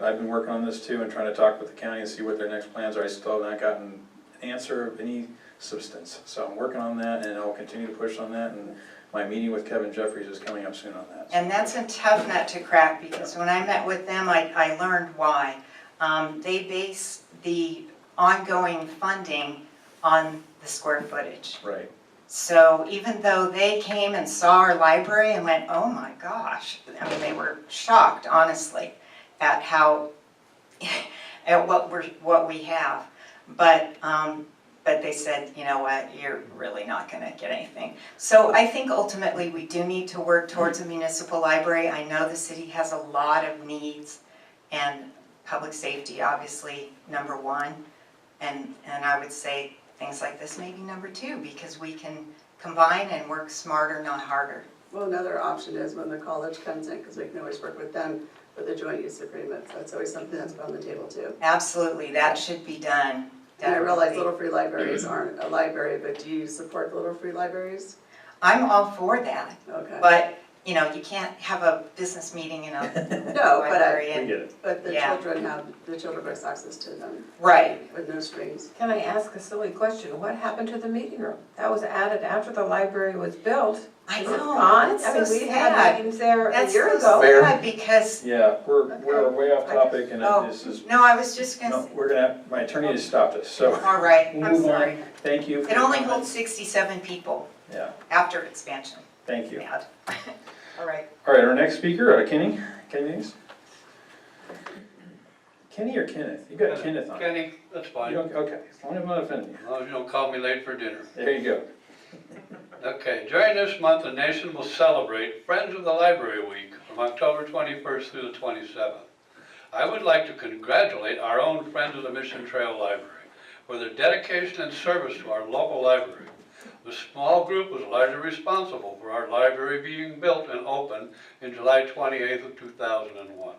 I've been working on this too and trying to talk with the county and see what their next plans are. I still have not gotten an answer of any substance. So I'm working on that and I'll continue to push on that and my meeting with Kevin Jeffries is coming up soon on that. And that's a tough nut to crack, because when I met with them, I, I learned why. Um, they base the ongoing funding on the square footage. Right, So even though they came and saw our library and went, oh my gosh, I mean, they were shocked, honestly, at how, at what we're, what we have. But, um, but they said, you know what, you're really not gonna get anything. So I think ultimately we do need to work towards a municipal library. I know the city has a lot of needs and public safety, obviously, number one. And, and I would say things like this may be number two, because we can combine and work smarter, not harder. Well, another option is when the college comes in, because we can always work with them with the joint use agreements. That's always something that's put on the table too. Absolutely, that should be done. And I realize definitely. Little Free Libraries aren't a library, but do you support the Little Free Libraries? I'm all for that, Okay. but, you know, you can't have a business meeting in a No, but I, library we and- get it. but the Yeah. children have, the children have access to them Right, with no strings. Can I ask a silly question? What happened to the meeting room? That was added after the library was built. I Is it know, gone? that's I mean, so we had sad. meetings there a that's year ago. so Fair. sad, because, Yeah, we're, we're way off Okay. topic and Oh. this is, no, I was just no, gonna, we're gonna, my attorney has stopped us, so. all right, Move I'm on. sorry. Thank you. for It your only holds comments. sixty-seven people Yeah, after expansion, thank you. bad. All right. All right, our next speaker, uh, Kenny, Kenny Hughes? Kenny or Kenneth? You got Kenneth on. You Kenny, that's fine, as don't- Okay, as long as I'm not offending you. long as you don't call me late for dinner. There you go. Okay, during this month, the nation will celebrate Friends of the Library Week from October 21st through the 27th. I would like to congratulate our own Friends of the Mission Trail Library for their dedication and service to our local library. The small group was largely responsible for our library being built and opened in July 28th of 2001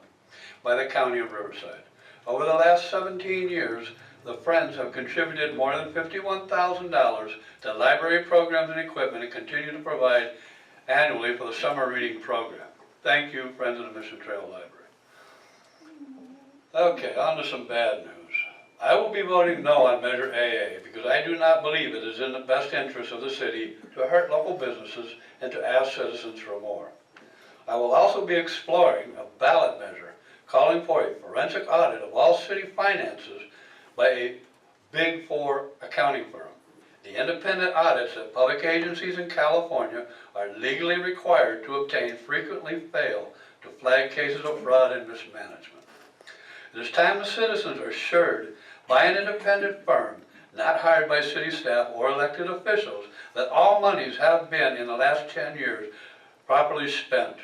by the County of Riverside. Over the last 17 years, the Friends have contributed more than $51,000 to library programs and equipment and continue to provide annually for the summer reading program. Thank you, Friends of the Mission Trail Library. Okay, on to some bad news. I will be voting no on Measure AA because I do not believe it is in the best interest of the city to hurt local businesses and to ask citizens for more. I will also be exploring a ballot measure calling for a forensic audit of all city finances by a Big Four accounting firm. The independent audits that public agencies in California are legally required to obtain frequently fail to flag cases of fraud and mismanagement. It is time the citizens are assured by an independent firm, not hired by city staff or elected officials, that all monies have been in the last ten years properly spent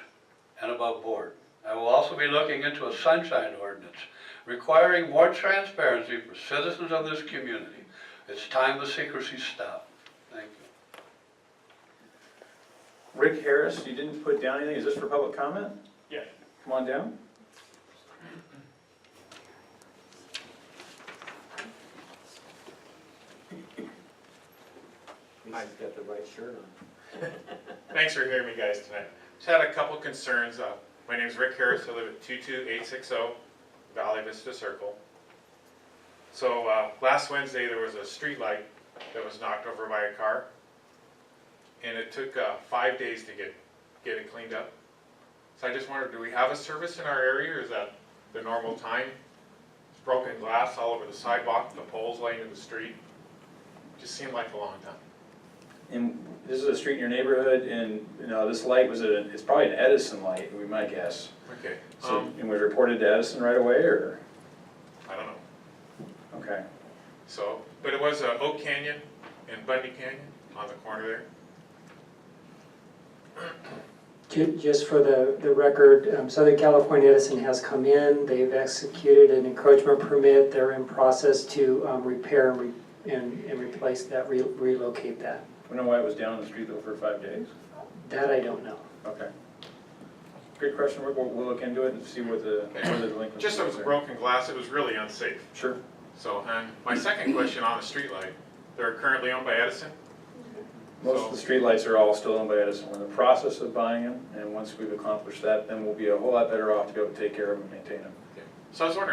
and above board. I will also be looking into a sunshine ordinance requiring more transparency for citizens of this community. It's time the secrecy stopped. Thank you. Rick Harris, you didn't put down anything. Is this for public comment? Yeah. Come on down. He's got the right shirt on. Thanks for hearing me guys tonight. Just had a couple concerns. Uh, My name's Rick Harris. I live at 22860 Valley oh, Vista Circle. So uh, last Wednesday, there was a street light that was knocked over by a car. And it took uh, five days to get, get it cleaned up. So I just wondered, do we have a service in our area or is that the normal time? It's Broken glass all over the sidewalk, the poles laying in the street. Just seemed like a long time. And this is a street in your neighborhood and, you know, this light was a, it's probably an Edison light, we might guess. Okay. So, Um, and was reported to Edison right away or, I don't know. okay. So, but it was uh, Oak Canyon and Bundy Canyon on the corner there. Ju- Just for the, the record, um, Southern California Edison has come in, they've executed an encroachment permit, they're in process to um, repair and re- and, and replace that, re- relocate that. We know why it was down on the street though for five days? That I don't know. Okay. Good question, Rick. We'll, we'll look into it and see what the, what the delinquency Just it was is there. broken glass, it was really unsafe. Sure. So, and my second question on the streetlight, they're currently owned by Edison. Most of the streetlights are all still owned by Edison. We're in the process of buying them, and once we've accomplished that, then we'll be a whole lot better off to be able to take care of them and maintain them. So I was wondering